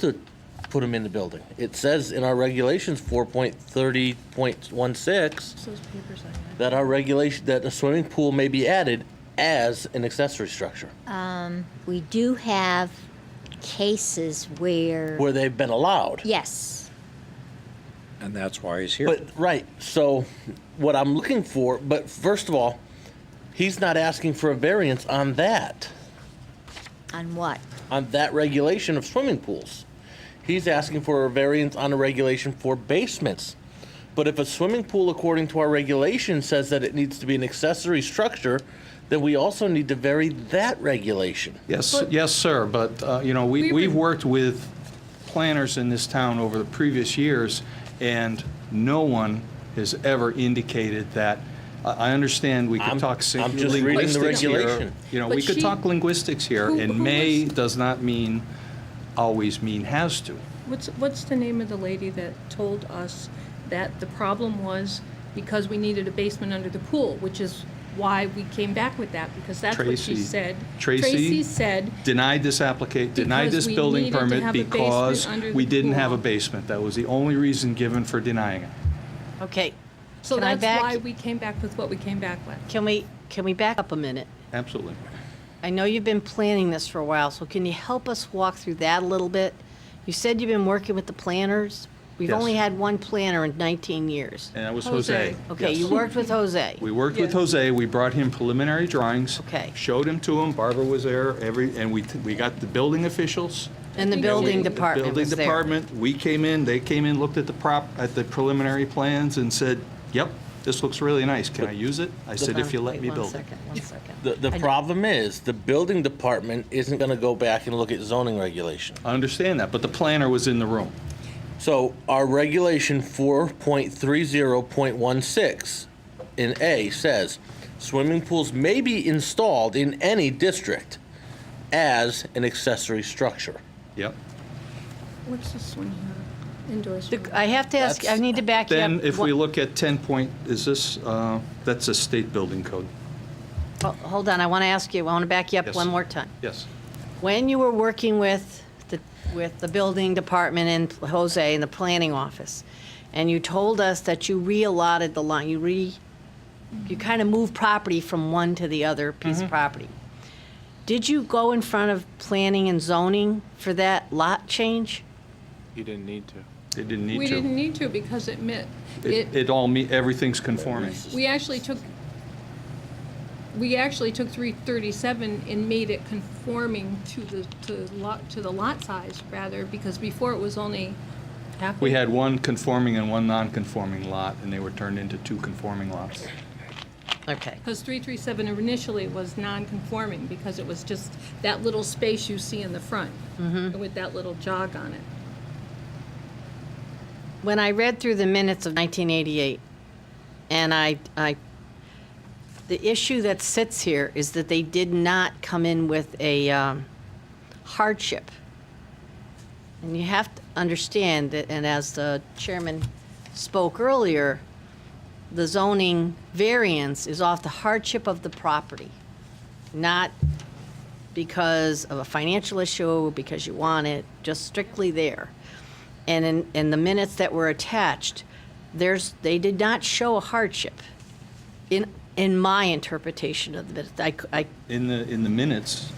to put them in the building. It says in our regulations, four point thirty point one six, Those papers I had. that our regulation, that a swimming pool may be added as an accessory structure, We do have cases where, where they've been allowed. yes, And that's why he's here. But, right, so what I'm looking for, but first of all, he's not asking for a variance on that, on what? on that regulation of swimming pools. He's asking for a variance on a regulation for basements. But if a swimming pool, according to our regulation, says that it needs to be an accessory structure, then we also need to vary that regulation. Yes, But- yes, sir, but, uh, you know, we, We we've were- worked with planners in this town over the previous years, and no one has ever indicated that, I, I understand we I'm- could talk sing- I'm just reading the linguistics here. regulation. You know, But we could she- talk linguistics here, Who- and who may was- does not mean, always mean has to. What's, what's the name of the lady that told us that the problem was because we needed a basement under the pool, which is why we came back with that, because that's what she Tracy. said. Tracy Tracy said, Denied this applica, denied Because this we building needed to permit have a basement because under the we didn't have a pool. basement. That was the only reason given for denying it. Okay, so Can I that's back- why we came back with what we came back with. can we, can we back up a minute? Absolutely. I know you've been planning this for a while, so can you help us walk through that a little bit? You said you've been working with the planners. We've Yes. only had one planner in 19 years. And that was Jose. Jose. Okay, Yes. you worked with Jose. We worked with Yes. Jose, we brought him preliminary drawings. Okay. Showed him to him, Barbara was there, every, and we, t- we got the building officials. And the We- building The department was Building there. department, we came in, they came in, looked at the prop, at the preliminary plans and said, yep, this looks really nice, can I use it? I said, if you let Wait me one build it. second, one second. The, the I- problem is, the building department isn't gonna go back and look at zoning regulation. I understand that, but the planner was in the room. So our regulation four point three zero point one six in A says, swimming pools may be installed in any district as an accessory structure. Yep. What's this one here? Indoor The- swimming. I have to ask, I That's- need to back you up. Then if we One- look at 10 point, is this, uh, that's a state building code? oh, Hold on, I want to ask you, I want to back you up Yes. one more time. Yes. When you were working with the, with the building department and Jose in the planning office, and you told us that you reallotted the line, you re, you kind of moved property from one to the other piece Mm-hmm. of property. Did you go in front of planning and zoning for that lot change? You didn't need to. It didn't need to. We didn't need to because it meant, It it all, me- everything's conforming. We actually took, we actually took three thirty-seven and made it conforming to the, to lot, to the lot size rather, because before it was only half. We had one conforming and one non-conforming lot, and they were turned into two conforming lots. Okay. Because three three seven initially was non-conforming because it was just that little space you see in the front. Mm-hmm. With that little jog on it. When I read through the minutes of 1988, and I, I, the issue that sits here is that they did not come in with a um, hardship. And you have to understand that, and as the chairman spoke earlier, the zoning variance is off the hardship of the property, not because of a financial issue, because you want it, just strictly there. And in, in the minutes that were attached, there's, they did not show a hardship in, in my interpretation of the minutes. I, c- I- In the, in the minutes,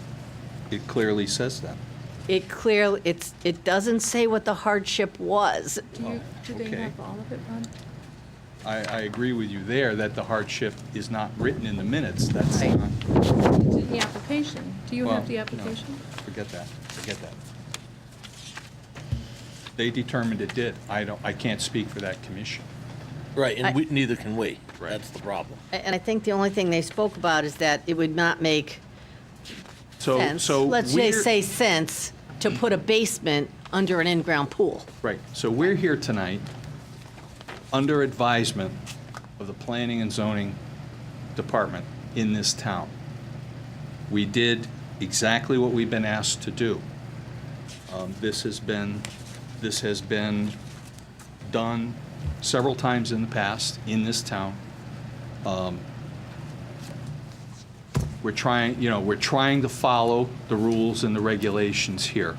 it clearly says that. it clearly, it's, it doesn't say what the hardship was. Do you, do they okay. have all of it, Bob? I, I agree with you there, that the hardship is not written in the minutes. That's, Right. not- It's in the application. Do you Well, have the no. application? forget that, forget that. They determined it did. I don't, I can't speak for that commission. Right, I- and we, neither can we. Right. That's the problem. A- And I think the only thing they spoke about is that it would not make So, sense, so let's we're- say, say sense, to put a basement under an in-ground pool. Right, so we're here tonight, under advisement of the Planning and Zoning Department in this town. We did exactly what we've been asked to do. Um, This has been, this has been done several times in the past in this town. Um, We're trying, you know, we're trying to follow the rules and the regulations here.